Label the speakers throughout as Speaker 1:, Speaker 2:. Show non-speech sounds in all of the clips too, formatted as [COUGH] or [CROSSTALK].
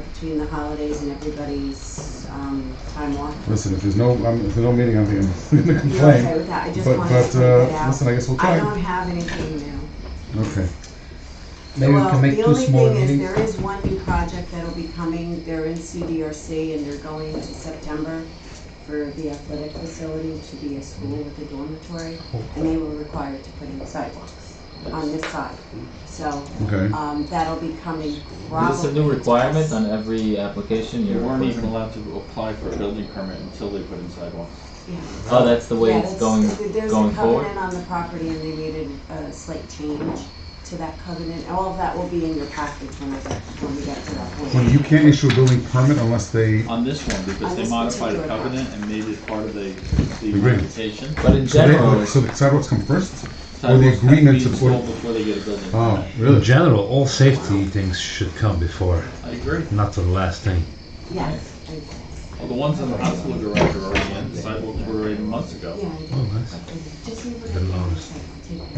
Speaker 1: between the holidays and everybody's, um, time off.
Speaker 2: Listen, if there's no, um, if there's no meeting, I think I'm gonna [LAUGHS]
Speaker 1: You're okay
Speaker 2: complain.
Speaker 1: with that? I just
Speaker 2: But,
Speaker 1: wanted to
Speaker 2: but,
Speaker 1: point that
Speaker 2: uh,
Speaker 1: out.
Speaker 2: listen, I guess we'll
Speaker 1: I
Speaker 2: try.
Speaker 1: don't have anything new.
Speaker 2: Okay.
Speaker 3: Maybe we can make two small
Speaker 1: Well, the only thing is,
Speaker 3: meetings.
Speaker 1: there is one new project that'll be coming, they're in CDRC and they're going to September for the athletic facility to be a school with a dormitory, and they were required to put in sidewalks on this side, so,
Speaker 2: Okay.
Speaker 1: um, that'll be coming probably.
Speaker 4: Is this a new requirement on every application
Speaker 5: You
Speaker 4: you're
Speaker 5: weren't even
Speaker 4: making?
Speaker 5: allowed to apply for a building permit until they put in sidewalks.
Speaker 1: Yeah.
Speaker 4: Oh, that's the way
Speaker 1: Yeah,
Speaker 4: it's
Speaker 1: that's-
Speaker 4: going,
Speaker 1: there's a
Speaker 4: going forward?
Speaker 1: covenant on the property and they needed a slight change to that covenant, all of that will be in your package when I get, when we get to that point.
Speaker 2: Well, you can't issue a building permit unless they,
Speaker 5: On this one, because
Speaker 1: On Oh,
Speaker 5: they
Speaker 1: this
Speaker 5: modified the
Speaker 1: particular
Speaker 5: covenant and made it part of the, the
Speaker 2: Agreement.
Speaker 5: application.
Speaker 4: But in
Speaker 2: so
Speaker 4: general,
Speaker 2: they, so the sidewalks come first? Or
Speaker 5: Sidewalks
Speaker 2: the
Speaker 5: have to be
Speaker 2: agreement to
Speaker 5: installed
Speaker 2: put,
Speaker 5: Before they get a building
Speaker 2: oh,
Speaker 5: permit.
Speaker 2: really?
Speaker 3: In general, all safety things should come before,
Speaker 5: I agree.
Speaker 3: not the last thing.
Speaker 1: Yes, I,
Speaker 5: Well, the ones on the hospital garage are already in, sidewalks were in months
Speaker 1: yeah,
Speaker 5: ago.
Speaker 1: I did.
Speaker 3: Oh, nice.
Speaker 1: Just leave it.
Speaker 3: Been noticed.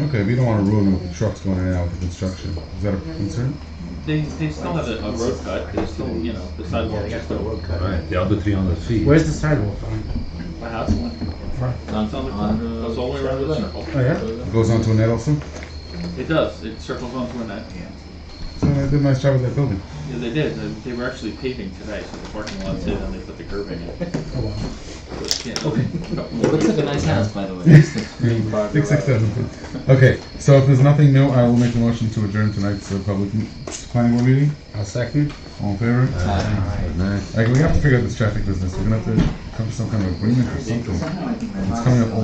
Speaker 2: Okay, we don't wanna ruin with the trucks going in and out with the construction. Is that a concern?
Speaker 5: They, they still have a, a road cut, they still, you know, the sidewalks are still,
Speaker 3: Right, the other three hundred feet.
Speaker 6: Where's the sidewalk? on?
Speaker 5: the house one.
Speaker 4: on,
Speaker 5: It's on the
Speaker 4: on,
Speaker 5: corner, goes all the way around the circle.
Speaker 2: Oh, yeah? It Goes onto a net also?
Speaker 5: It does, it circles onto a net.
Speaker 2: So they did a nice job with that building.
Speaker 5: Yeah, they did, They- they were actually paving today, so the parking lot's in and they put the curb in it. Yeah, [LAUGHS] couple more
Speaker 4: it looks
Speaker 5: weeks.
Speaker 4: like a nice house, by the way. It's the green bar
Speaker 2: Six, six,
Speaker 4: garage.
Speaker 2: seven. Okay, so if there's nothing new, I will make a motion to adjourn tonight's uh, public m- planning board meeting.
Speaker 6: I'll second.
Speaker 2: All in favor?
Speaker 3: Nice.
Speaker 2: Like, we have to figure out this traffic business. We're gonna have to come to some kind of agreement or something. It's coming up